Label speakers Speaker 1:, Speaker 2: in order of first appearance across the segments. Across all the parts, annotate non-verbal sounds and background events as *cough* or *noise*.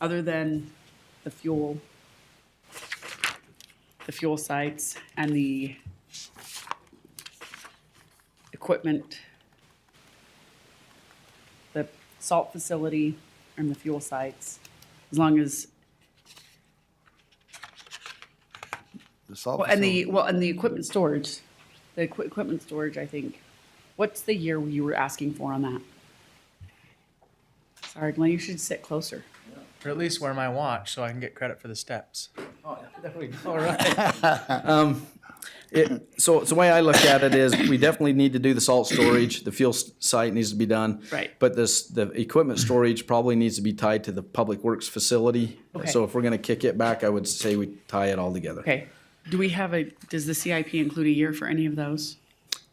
Speaker 1: other than the fuel, the fuel sites and the equipment, the salt facility and the fuel sites, as long as,
Speaker 2: The salt
Speaker 1: well, and
Speaker 2: facility.
Speaker 1: the, well, and the equipment storage, the equi- equipment storage, I think. What's the year you were asking for on that? Sorry, Glenn, you should sit closer.
Speaker 3: Or at least wear my watch so I can get credit for the steps.
Speaker 4: Oh, There we go, all right.
Speaker 5: It, so, so the way I look at it is, we definitely need to do the salt storage, the fuel s- site needs to be done.
Speaker 1: Right.
Speaker 5: But this, the equipment storage probably needs to be tied to the public works facility.
Speaker 1: Okay.
Speaker 5: So if we're gonna kick it back, I would say we tie it all together.
Speaker 1: Okay, do we have a, does the CIP include a year for any of those?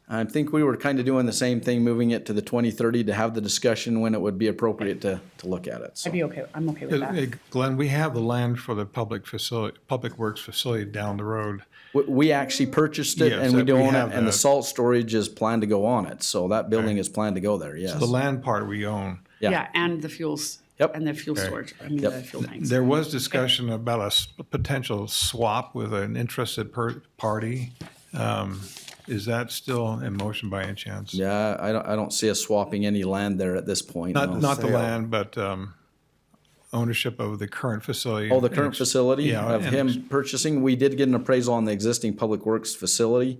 Speaker 5: I think we were kind of doing the same thing, moving it to the twenty thirty to have the discussion when it would be appropriate to, to look at it, so.
Speaker 1: I'd be okay, I'm okay with
Speaker 6: Hey,
Speaker 1: that.
Speaker 6: Glenn, we have the land for the public facility, public works facility down the road.
Speaker 5: We, we actually purchased it
Speaker 6: Yes,
Speaker 5: and we
Speaker 6: that-
Speaker 5: do
Speaker 6: we
Speaker 5: own
Speaker 6: have
Speaker 5: it, and the
Speaker 6: that.
Speaker 5: salt storage is planned to go on it, so that building is planned to go there, yes.
Speaker 6: The land part we own.
Speaker 5: yeah.
Speaker 1: Yeah, and the fuels.
Speaker 5: Yep.
Speaker 1: And the fuel storage, I mean,
Speaker 5: Yep.
Speaker 1: the fuel tanks.
Speaker 6: There was discussion about a s- potential swap with an interested per, party. Um, Is that still in motion by any chance?
Speaker 5: Yeah, I don't, I don't see us swapping any land there at this point. no.
Speaker 6: Not, not the
Speaker 2: Sale.
Speaker 6: land, but, um, ownership of the current facility.
Speaker 5: Oh, the current facility
Speaker 6: yeah,
Speaker 5: of
Speaker 6: and
Speaker 5: him purchasing, we did get an appraisal on the existing public works facility.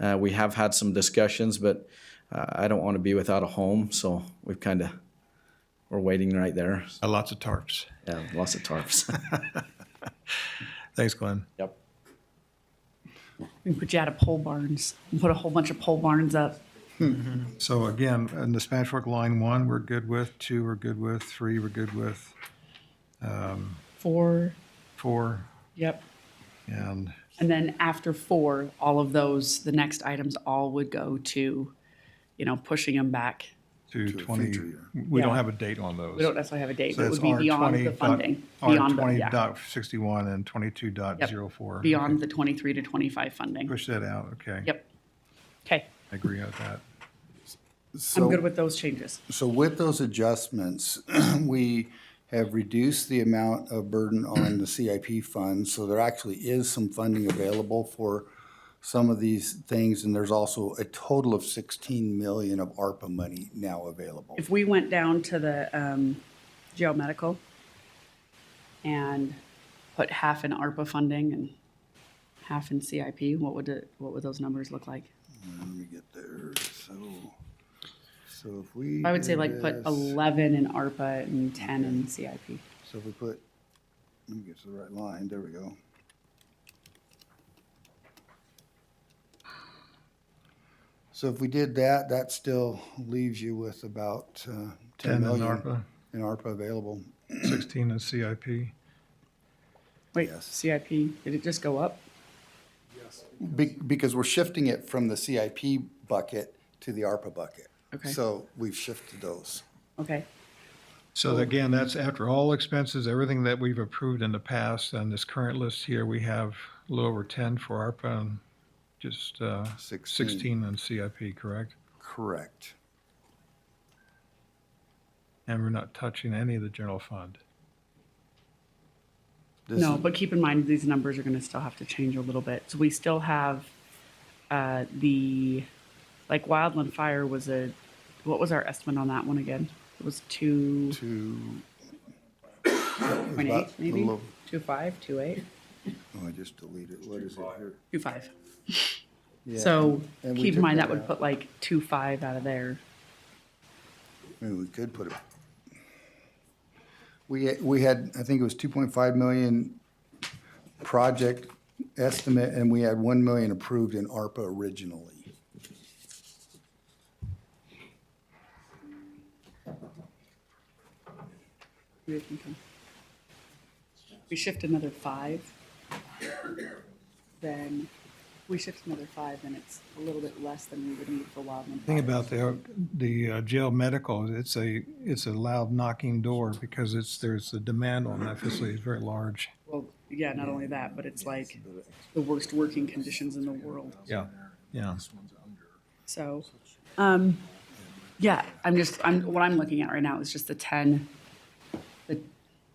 Speaker 5: Uh, we have had some discussions, but, uh, I don't wanna be without a home, so we've kinda, we're waiting right there.
Speaker 6: Uh, Lots of tarps.
Speaker 5: Yeah, lots of tarps. *laughs*
Speaker 6: Thanks, Glenn.
Speaker 5: Yep.
Speaker 1: We put you out of pole barns, and put a whole bunch of pole barns up.
Speaker 6: So again, in the Spanish Fork Line One, we're good with, two, we're good with, three, we're good with,
Speaker 1: Four,
Speaker 6: four,
Speaker 1: yep.
Speaker 6: and
Speaker 1: And then after four, all of those, the next items all would go to, you know, pushing them back.
Speaker 6: to
Speaker 2: a
Speaker 6: twenty.
Speaker 2: future year.
Speaker 6: We don't
Speaker 1: Yeah.
Speaker 6: have a date on those.
Speaker 1: We don't necessarily have a date,
Speaker 6: So
Speaker 1: but it
Speaker 6: that's
Speaker 1: would be
Speaker 6: R
Speaker 1: beyond
Speaker 6: twenty
Speaker 1: the
Speaker 6: dot.
Speaker 1: funding.
Speaker 6: R
Speaker 1: Beyond, the-
Speaker 6: twenty
Speaker 1: yeah,
Speaker 6: dot sixty-one and twenty-two dot zero four.
Speaker 1: beyond the twenty-three to twenty-five funding.
Speaker 6: Push that out, okay.
Speaker 1: Yep. Okay,
Speaker 6: I agree with that.
Speaker 1: I'm good
Speaker 2: So,
Speaker 1: with those changes.
Speaker 2: so with those adjustments, *clears throat* we have reduced the amount of burden on the CIP fund. So there actually is some funding available for some of these things. And there's also a total of 16 million of ARPA money now available.
Speaker 1: if we went down to the um, jail medical and put half in ARPA funding and half in CIP, what would it, what would those numbers look like?
Speaker 2: Let me get there. So, so if we.
Speaker 1: I would say
Speaker 2: do
Speaker 1: like put
Speaker 2: this-
Speaker 1: 11 in ARPA and 10 in CIP.
Speaker 2: So if we put, let me get to the right line, there we go. So if we did that, that still leaves you with about uh, ten
Speaker 6: Ten in
Speaker 2: million
Speaker 6: ARPA,
Speaker 2: in ARPA available.
Speaker 6: sixteen in CIP.
Speaker 1: Wait,
Speaker 2: Yes.
Speaker 1: CIP, did it just go up?
Speaker 2: Be- Because we're shifting it from the CIP bucket to the ARPA bucket.
Speaker 1: Okay.
Speaker 2: So we've shifted those.
Speaker 1: Okay,
Speaker 6: So again, that's after all expenses, everything that we've approved in the past, and this current list here, we have a little over ten for ARPA and just uh,
Speaker 2: Sixteen.
Speaker 6: sixteen in CIP, correct?
Speaker 2: Correct.
Speaker 6: And we're not touching any of the general fund.
Speaker 2: This
Speaker 1: no,
Speaker 2: is-
Speaker 1: but keep in mind, these numbers are gonna still have to change a little bit. So we still have uh, the, like wildland fire was a, what was our estimate on that one again? It was two.
Speaker 2: To,
Speaker 1: Point eight,
Speaker 2: About a
Speaker 1: maybe?
Speaker 2: little-
Speaker 1: Two five, two eight,
Speaker 2: oh, I just deleted, what is it here?
Speaker 1: two five.
Speaker 2: Yeah,
Speaker 1: So
Speaker 2: and we
Speaker 1: keep in
Speaker 2: took
Speaker 1: mind, that
Speaker 2: that
Speaker 1: would
Speaker 2: out.
Speaker 1: put like two five out of there.
Speaker 2: I mean, we could put it. We, we had, I think it was two point five million project estimate, and we had one million approved in ARPA originally.
Speaker 1: We can- We shift another five, then, we shift another five, then it's a little bit less than we would need for wildland. fire.
Speaker 6: Thing about the, the uh, jail medical, it's a, it's a loud knocking door because it's, there's a demand on that facility, it's very large.
Speaker 1: Well, yeah, not only that, but it's like the worst working conditions in the world.
Speaker 6: Yeah. Yeah.
Speaker 1: So, um, yeah, I'm just, I'm, what I'm looking at right now is just the ten